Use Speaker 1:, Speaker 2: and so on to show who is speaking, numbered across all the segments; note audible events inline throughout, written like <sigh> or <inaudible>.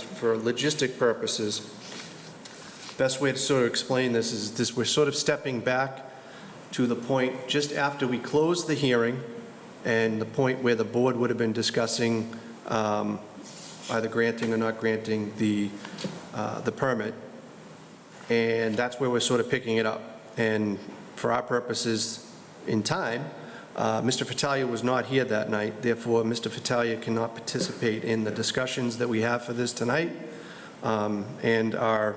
Speaker 1: for logistic purposes, best way to sort of explain this is this, we're sort of stepping back to the point just after we closed the hearing and the point where the board would have been discussing um, either granting or not granting the, uh, the permit. And that's where we're sort of picking it up. And for our purposes in time, uh, Mr. Fattalia was not here that night, therefore Mr. Fattalia cannot participate in the discussions that we have for this tonight um, and our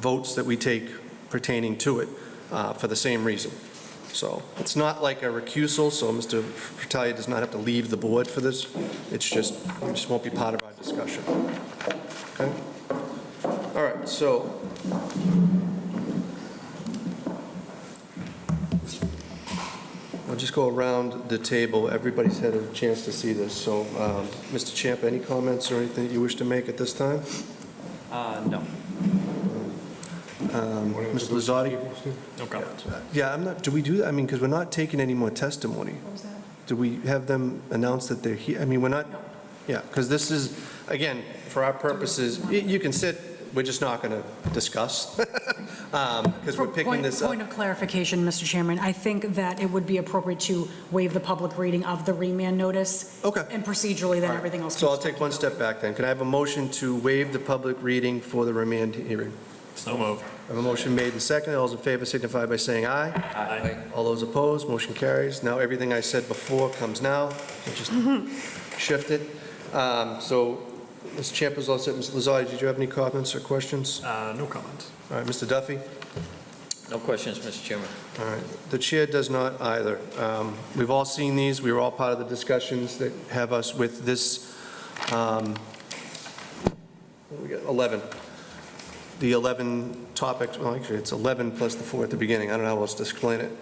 Speaker 1: votes that we take pertaining to it uh, for the same reason. So it's not like a recusal, so Mr. Fattalia does not have to leave the board for this. It's just, it just won't be part of our discussion. Okay? All right, so I'll just go around the table. Everybody's had a chance to see this, so, um, Mr. Champ, any comments or anything that you wish to make at this time?
Speaker 2: Uh, no.
Speaker 1: Um, Ms. Lozardi?
Speaker 2: No comments.
Speaker 1: Yeah, I'm not, do we do, that? I mean, because we're not taking any more testimony.
Speaker 3: What was that?
Speaker 1: Do we have them announce that they're here? I mean, we're not, yeah, because this is, again, for our purposes, y- you can sit, we're just not going to discuss, <laughs> because we're picking
Speaker 3: Point-
Speaker 1: this up.
Speaker 3: Point of clarification, Mr. Chairman, I think that it would be appropriate to waive the public reading of the remand notice.
Speaker 1: Okay.
Speaker 3: And procedurally, then
Speaker 1: All right.
Speaker 3: everything else.
Speaker 1: So I'll
Speaker 3: comes-
Speaker 1: take one step back then. Can I have a motion to waive the public reading for the remand hearing?
Speaker 2: So moved.
Speaker 1: I have a motion made and seconded. All those in favor signify by saying aye.
Speaker 2: Aye.
Speaker 1: All those opposed, motion carries. Now, everything I said before comes now, It just shifted. Um, So, Mr. Champ is all set. Ms. Lozardi, did you have any comments or questions?
Speaker 2: Uh, no comments.
Speaker 1: All right, Mr. Duffy?
Speaker 4: No questions, Mr. Chairman.
Speaker 1: All right, the chair does not either. Um, We've all seen these, we were all part of the discussions that have us with this, um, what we got, 11, the 11 topics, well, actually, it's 11 plus the four at the beginning, I don't know how else to explain it.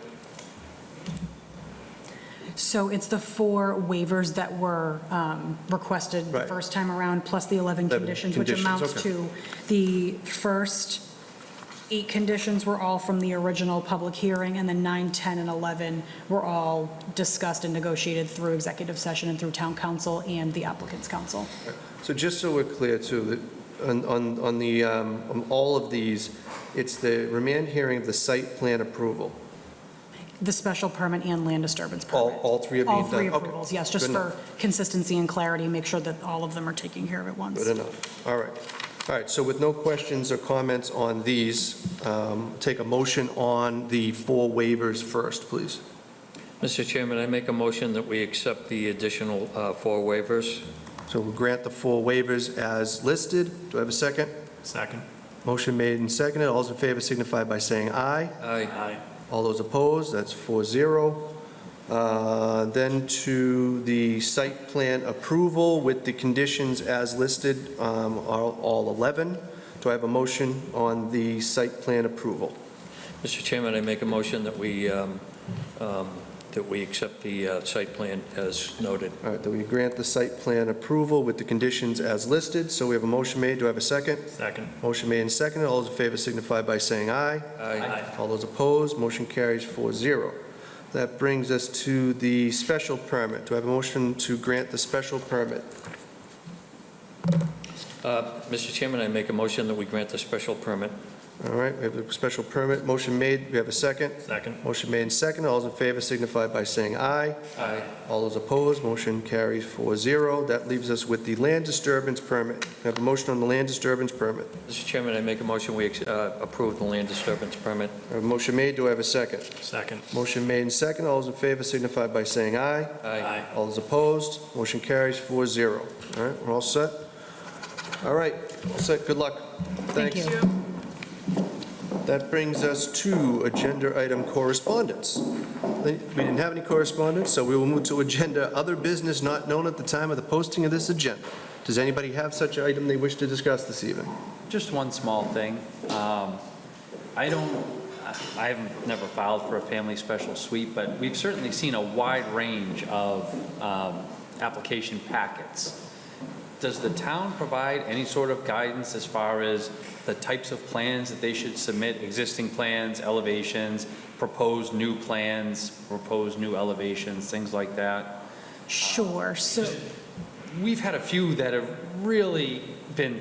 Speaker 3: So it's the four waivers that were um, requested the
Speaker 1: Right.
Speaker 3: first time around, plus the 11
Speaker 1: 11
Speaker 3: conditions, which
Speaker 1: conditions,
Speaker 3: amounts
Speaker 1: okay.
Speaker 3: to the first eight conditions were all from the original public hearing, and then nine, 10, and 11 were all discussed and negotiated through executive session and through town council and the applicant's council.
Speaker 1: So just so we're clear too, that on, on, on the, um, on all of these, it's the remand hearing of the site plan approval.
Speaker 3: The special permit and land disturbance
Speaker 1: All-
Speaker 3: permit.
Speaker 1: all three are being
Speaker 3: All three
Speaker 1: done. Okay.
Speaker 3: approvals, yes, just
Speaker 1: Good
Speaker 3: for consistency and clarity, make sure that all of them are taken care of at once.
Speaker 1: Good enough. All right. All right, so with no questions or comments on these, um, take a motion on the four waivers first, please.
Speaker 4: Mr. Chairman, I make a motion that we accept the additional uh, four waivers.
Speaker 1: So we'll grant the four waivers as listed. Do I have a second?
Speaker 2: Second.
Speaker 1: Motion made and seconded. All those in favor signify by saying aye.
Speaker 4: Aye.
Speaker 2: Aye.
Speaker 1: All those opposed, that's 4-0. Uh, Then to the site plan approval with the conditions as listed, um, are all 11. Do I have a motion on the site plan approval?
Speaker 4: Mr. Chairman, I make a motion that we, um, um, that we accept the uh, site plan as noted.
Speaker 1: All right, that we grant the site plan approval with the conditions as listed. So we have a motion made, do I have a second?
Speaker 2: Second.
Speaker 1: Motion made and seconded, all those in favor signify by saying aye. All those opposed, motion carries 4-0. That brings us to the special permit. Do I have a motion to grant the special permit?
Speaker 4: Uh, Mr. Chairman, I make a motion that we grant the special permit.
Speaker 1: All right, we have a special permit, motion made, we have a second.
Speaker 2: Second.
Speaker 1: Motion made and second, all those in favor signify by saying aye.
Speaker 4: Aye.
Speaker 1: All those opposed, motion carries 4-0. That leaves us with the land disturbance permit. Can I have a motion on the land disturbance permit?
Speaker 4: Mr. Chairman, I make a motion we ex- uh, approve the land disturbance permit.
Speaker 1: I have a motion made, do I have a second?
Speaker 2: Second.
Speaker 1: Motion made and second, all those in favor signify by saying aye. All those opposed, motion carries 4-0. All right, we're all set? All right, all set, good luck.
Speaker 3: Thank
Speaker 1: Thanks.
Speaker 3: you.
Speaker 1: That brings us to agenda item correspondence. We didn't have any correspondence, so we will move to agenda other business not known at the time of the posting of this agenda. Does anybody have such an item they wish to discuss this evening?
Speaker 5: Just one small thing. Um, I don't, I- I haven't never filed for a family special suite, but we've certainly seen a wide range of um, application packets. Does the town provide any sort of guidance as far as the types of plans that they should submit, existing plans, elevations, proposed new plans, proposed new elevations, things like that?
Speaker 3: Sure, so.
Speaker 5: We've had a few that have really been